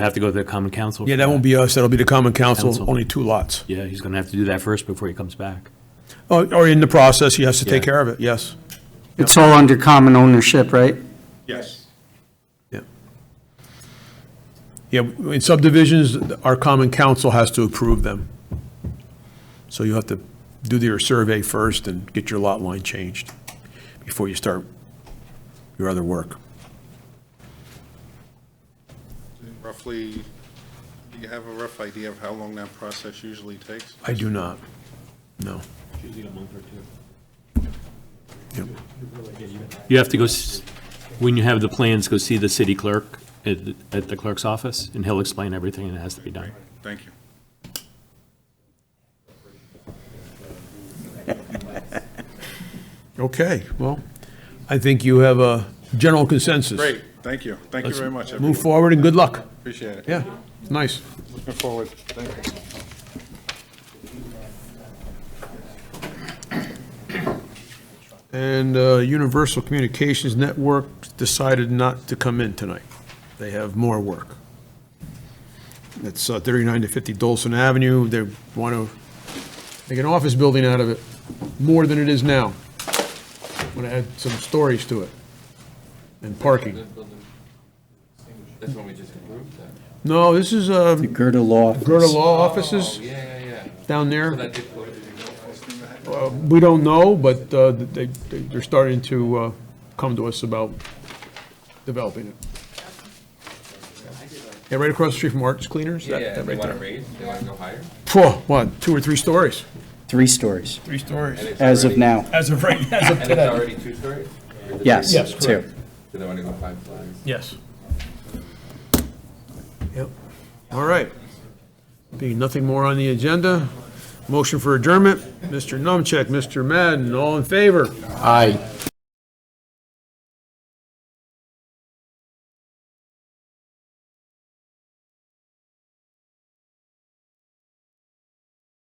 Have to go to the common council. Yeah, that won't be us, that'll be the common Council. council, only two lots. Yeah, he's gonna have to do that first before he comes back. Or or in the process, he has to take Yeah. care of it, yes. It's all under common ownership, right? Yes. Yeah. Yeah, in subdivisions, our common council has to approve them. So you have to do your survey first and get your lot line changed before you start your other work. Roughly, do you have a rough idea of how long that process usually takes? I do not, no. Yep. You have to go, s- when you have the plans, go see the city clerk at, the- at the clerk's office, and he'll explain everything that has to be done. Thank you. Okay, well, I think you have a general consensus. Great, thank you. Thank you very much, Move everyone. forward and good luck. Appreciate it. Yeah, nice. Looking forward. Thank you. And uh, Universal Communications Network decided not to come in tonight. They have more work. It's uh, 39 to 50 Dolson Avenue. They want to make an office building out of it, more than it is now. Want to add some stories to it and parking. That's when we just approved that. No, this is um, Gerda Law. Gerda Law Offices Yeah, yeah, down there. yeah. That did go to the- We don't know, but uh, they, they- they're starting to uh, come to us about developing it. Yeah, right across the street from Arts Cleaners? that- Yeah, that they right want to there. raise, they want to go higher. Phew, what, two or three stories? Three stories, Three stories. It's as of already- now. As of right, as of And it's already two stories? Yes, Yes, two. Do they want to go five stories? Yes. Yep, all right. Being nothing more on the agenda, motion for adjournment, Mr. Numcheck, Mr. Madden, all in favor? Aye.